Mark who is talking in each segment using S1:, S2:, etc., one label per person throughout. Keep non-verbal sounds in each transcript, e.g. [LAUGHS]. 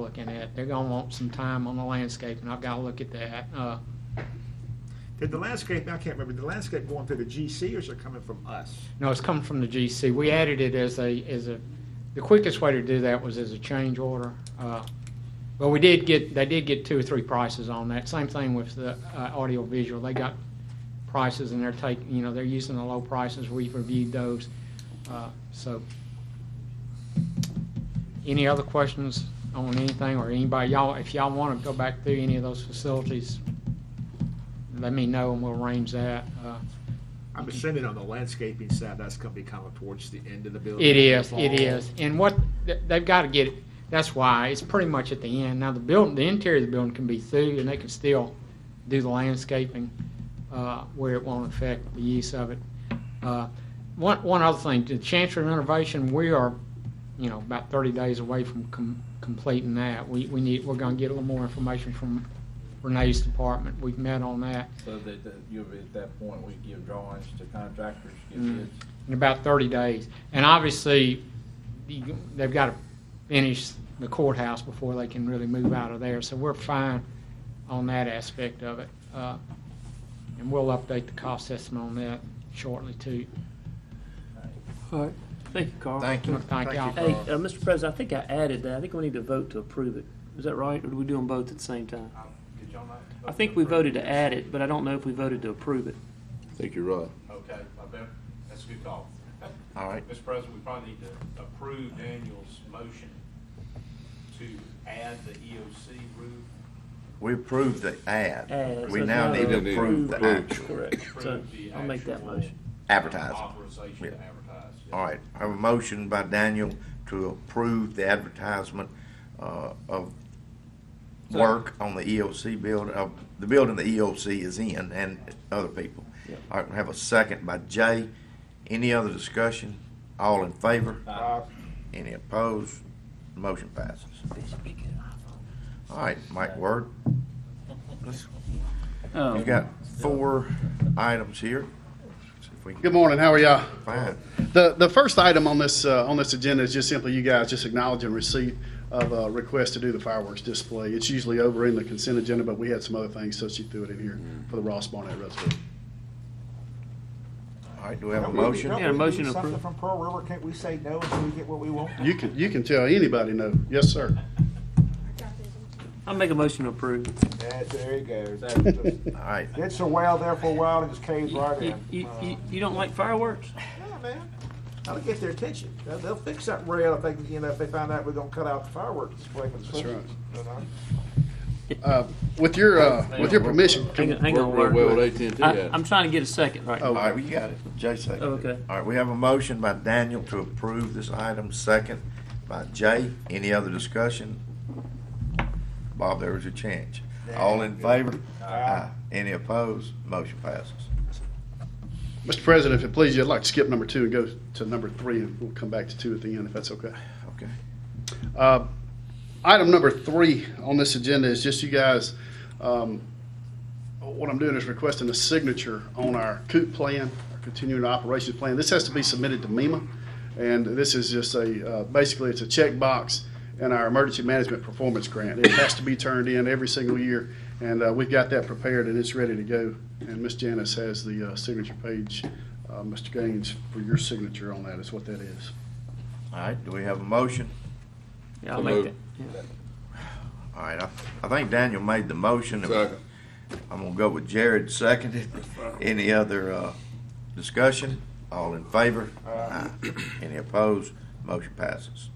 S1: looking at. They're gonna want some time on the landscape, and I've gotta look at that. Uh,
S2: Did the landscape, I can't remember, did the landscape going through the GC or is it coming from us?
S1: No, it's coming from the GC. We added it as a, as a, the quickest way to do that was as a change order. Uh, But we did get, they did get two or three prices on that. Same thing with the uh, audio visual. They got prices and they're taking, you know, they're using the low prices. We've reviewed those. Uh, So, any other questions on anything or anybody? Y'all, if y'all want to go back through any of those facilities, let me know and we'll arrange that. Uh,
S2: I'm assuming on the landscaping side, that's gonna be coming towards the end of the building.
S1: It is, it is. And what, th- they've got to get it, that's why, it's pretty much at the end. Now, the building, the interior of the building can be through, and they can still do the landscaping uh, where it won't affect the use of it. Uh, One, one other thing, the chancery renovation, we are, you know, about 30 days away from com- completing that. We, we need, we're going to get a little more information from Renee's department. We've met on that.
S3: So that, that you'll be at that point, we give drawings to contractors, give
S1: Mm.
S3: bids.
S1: in about 30 days. And obviously, you- they've got to finish the courthouse before they can really move out of there. So we're fine on that aspect of it. Uh, And we'll update the cost estimate on that shortly, too.
S4: All right, thank you, Carl.
S5: Thank you.
S1: Thank y'all.
S4: Hey, uh, Mr. President, I think I added that. I think we need to vote to approve it. Is that right, or do we do them both at the same time?
S3: Did y'all not?
S4: I think we voted to add it, but I don't know if we voted to approve it.
S5: I think you're right.
S3: Okay, I bet, that's a good call.
S5: [LAUGHS] All right.
S3: Mr. President, we probably need to approve Daniel's motion to add the EOC roof.
S5: We approved the ad.
S4: Add,
S5: We
S4: so
S5: now
S4: now
S5: need to
S4: we
S5: approve the
S4: approve.
S5: actual
S4: Correct. So
S3: Approve the
S4: I'll make that
S3: actual
S4: motion.
S5: advertising.
S3: Authorization to
S5: Yeah.
S3: advertise. yeah.
S5: All right, I have a motion by Daniel to approve the advertisement uh, of work on the E EOC building, of the building the EOC is in and other people.
S4: Yep.
S5: All right, we have a second by Jay. Any other discussion? All in favor?
S3: Uh,
S5: Any opposed? Motion passes. All right, Mike Word. You've got four items here. See if we can
S6: Good morning. How are y'all?
S5: find.
S6: The the first item on this uh, on this agenda is just simply you guys just acknowledging receipt of a request to do the fireworks display. It's usually over in the consent agenda, but we had some other things, so she threw it in here for the Ross Barnett Reservoir.
S5: All right, do we have a motion?
S4: Yeah, a motion to
S2: Something
S4: approve.
S2: from Pearl River, can't we say no until we get what we want?
S6: You can you can tell anybody no. Yes, sir.
S4: I'll make a motion to approve.
S2: Yeah, there you go.
S5: All right,
S2: It's a while there for a while and it's caved
S4: You,
S2: right
S4: you-
S2: in. Uh,
S4: you,
S7: uh,
S4: you- you don't like fireworks?
S2: Yeah, man, that'll get their attention. They'll, they'll fix that rail if they, you know, if they find out we're gonna cut out the fireworks display. for the
S6: That's right.
S2: Christmas, you know?
S6: Uh, with your uh, with your permission,
S4: Hang on,
S6: can,
S4: hang on,
S7: Work real well
S4: Word.
S7: with AT&T,
S4: I-
S7: yeah.
S4: I'm trying to get a second right
S5: all
S4: now.
S5: right, well, Oh, you got it. Jay seconded.
S4: Oh, okay.
S5: All right, we have a motion by Daniel to approve this item, second by Jay. Any other discussion? Bob, there was a change. All in favor? Aye. Any opposed? Motion passes.
S6: Mr. President, if it pleases you, I'd like to skip number two and go to number three, and we'll come back to two at the end if that's okay.
S5: Okay.
S6: Uh, Item number three on this agenda is just you guys, um, what I'm doing is requesting a signature on our COOP plan, our continuing operations plan. This has to be submitted to MEMA, and this is just a, uh, basically, it's a checkbox in our emergency management performance grant. It has to be turned in every single year, and uh, we've got that prepared and it's ready to go. And Ms. Janice has the uh, signature page, uh, Mr. Gaines, for your signature on that is what that is.
S5: All right, do we have a motion?
S4: Yeah, I'll
S7: So
S4: make that.
S7: moved.
S4: yeah.
S5: All right, I, I think Daniel made the motion.
S7: Second.
S5: I'm gonna go with Jared seconded. Any other, uh, discussion? All in favor? Aye. Any opposed? Motion passes.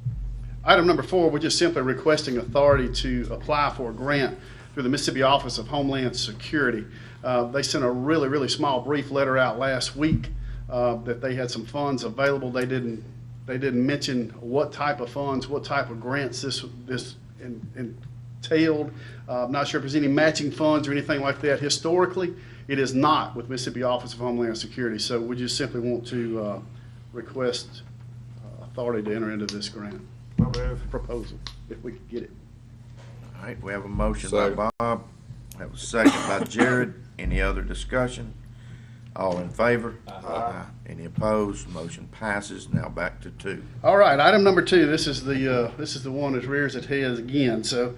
S6: Item number four, we're just simply requesting authority to apply for a grant through the Mississippi Office of Homeland Security. Uh, They sent a really, really small brief letter out last week uh, that they had some funds available. They didn't, they didn't mention what type of funds, what type of grants this, this en- entailed. Uh, I'm not sure if there's any matching funds or anything like that. Historically, it is not with Mississippi Office of Homeland Security. So we just simply want to uh, request uh, authority to enter into this grant proposal, if we could get it.
S5: All right, we have a motion by
S7: Second.
S5: Bob, we have a second by Jared. Any other discussion? All in favor? Aye. Any opposed? Motion passes. Now back to two.
S6: All right, item number two, this is the, uh, this is the one that rears its head again. So